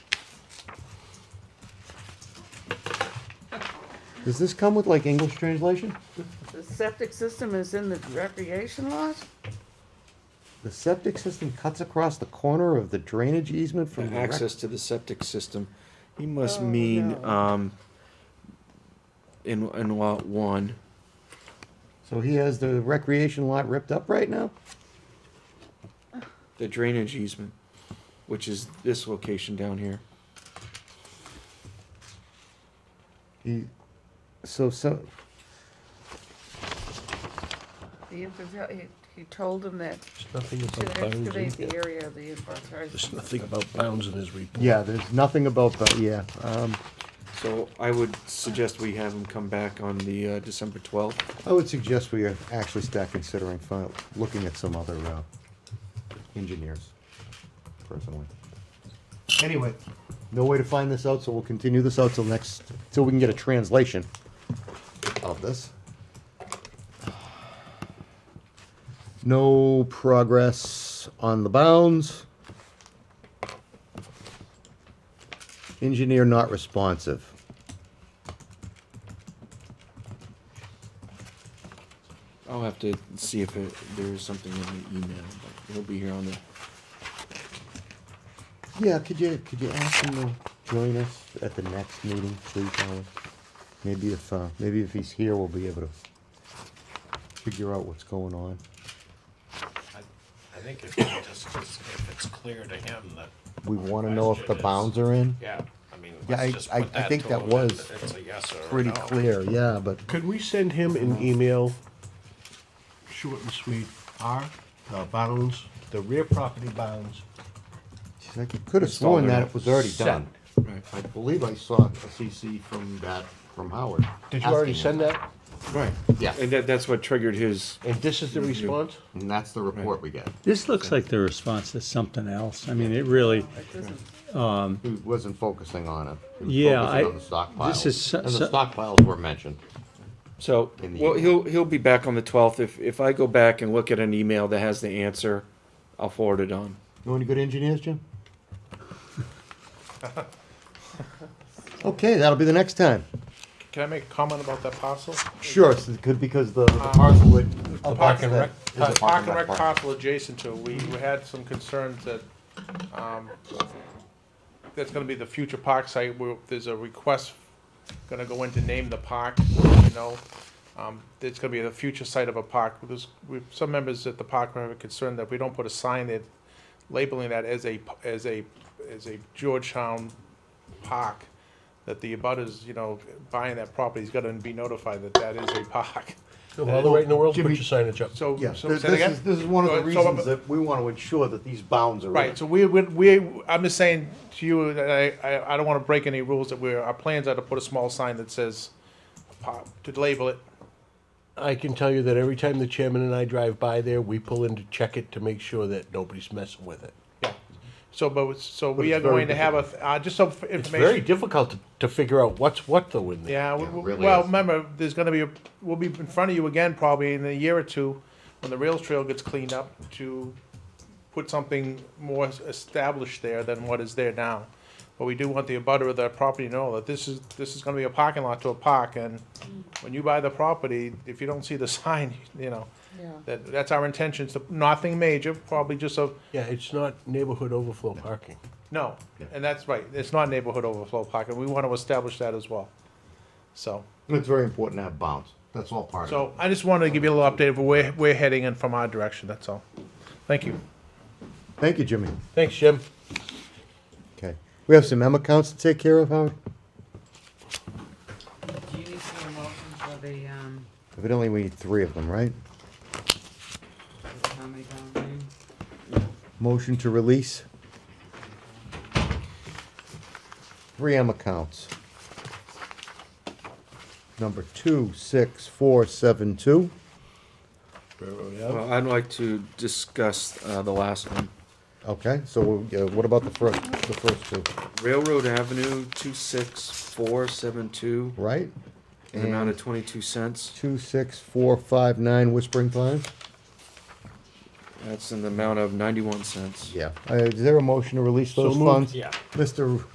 Does this come with like English translation? The septic system is in the recreation lot? The septic system cuts across the corner of the drainage easement from the rec- access to the septic system. He must Oh, mean, no. um, in, in lot one. So he has the recreation lot ripped up right now? the drainage easement, which is this location down here. He, so, so, The infant, he, he told him that There's nothing to about excavate bounds. in- the area of the infiltration. There's nothing about bounds in his report. yeah, there's nothing about, but, yeah, um, So I would suggest we have him come back on the uh, December 12th. I would suggest we actually start considering, fi- looking at some other, uh, engineers, personally. Anyway, no way to find this out, so we'll continue this out till next, till we can get a translation of this. No progress on the bounds. Engineer not responsive. I'll have to see if it, there is something in the email, but he'll be here on the, Yeah, could you, could you ask him to join us at the next meeting, please, Alan? Maybe if, uh, maybe if he's here, we'll be able to figure out what's going on. I I think if, it just, just if it's clear to him that, We wanna know if the Question is- bounds are in. yeah, I mean, Yeah, I- let's just I- put I that think to that him, was that It's a yes or a Pretty no. clear, yeah, but Could we send him an email, short and sweet, our uh, bounds, the rear property bounds? she's like, you could have sworn that it was already Set. done. right, I believe I saw a CC from that, from Howard. Did you already asking him. send that? right. Yeah. And that, that's what triggered his, And this Mm-hmm. is the response? And that's the report we get. This looks like the response is something else. I mean, it really, It doesn't, He wasn't focusing on it. He was Yeah, focusing I- on the stockpiles. this is so- And the so- stockpiles were mentioned. so, In the well, email. he'll, he'll be back on the 12th. If, if I go back and look at an email that has the answer, I'll forward it on. Know any good engineers, Jim? Okay, that'll be the next time. Can I make a comment about that parcel? Sure, it's good because the the parcel would. The park and Uh, rec, uh, park and rec parcel adjacent to, we, we had some concerns that, um, that's gonna be the future park site, where there's a request gonna go in to name the park, you know? Um, it's gonna be the future site of a park, there's, we, some members at the park were concerned that we don't put a sign that labeling that as a, p- as a, as a Georgetown park, that the abutters, you know, buying that property is gonna be notified that that is a park. Go all the way in the world, put your Jimmy- signage up. So, Yes, so this say that again? is, this is one of the So, so- reasons that we want to ensure that these bounds are. in. Right, so we, we, we, I'm just saying to you, that I, I, I don't wanna break any rules that we're, our plans are to put a small sign that says, pop, to label it. I can tell you that every time the chairman and I drive by there, we pull in to check it to make sure that nobody's messing with it. Yeah. So, but, it's- so we it's are very going to have a, uh, just some It's very information. difficult to, to figure out what's what though in there. Yeah, we- Yeah, it we- really well, is. remember, there's gonna be, a we'll be in front of you again probably in a year or two, when the rails trail gets cleaned up, to put something more es- established there than what is there now. But we do want the abutter of that property to know that this is, this is gonna be a parking lot to a park, and when you buy the property, if you don't see the sign, you know, yeah. that, that's our intentions, to- nothing major, probably just a, Yeah, it's not neighborhood overflow parking. no, and that's right, it's not neighborhood overflow park, and we wanna establish that as well, so. It's very important to have bounds. That's all part of So I just wanted to give you a little update of where we're heading and from our direction, that's all. Thank you. it. Thank you, Jimmy. Thanks, Jim. Okay. We have some M accounts to take care of, Howard? Do you need some motion for the, um, Evidently, we need three of them, right? how many pound thing? Motion to release. Three M accounts. Number two, six, four, seven, two. Well, I'd like to discuss uh, the last one. Okay, so uh, what about the first, the first two, Railroad Avenue 26472, right? an amount of 22 cents. Two, six, four, five, nine Whispering Pines? That's in the amount of 91 cents. Yeah. Uh, is there a motion to release those funds? Yeah. Mr.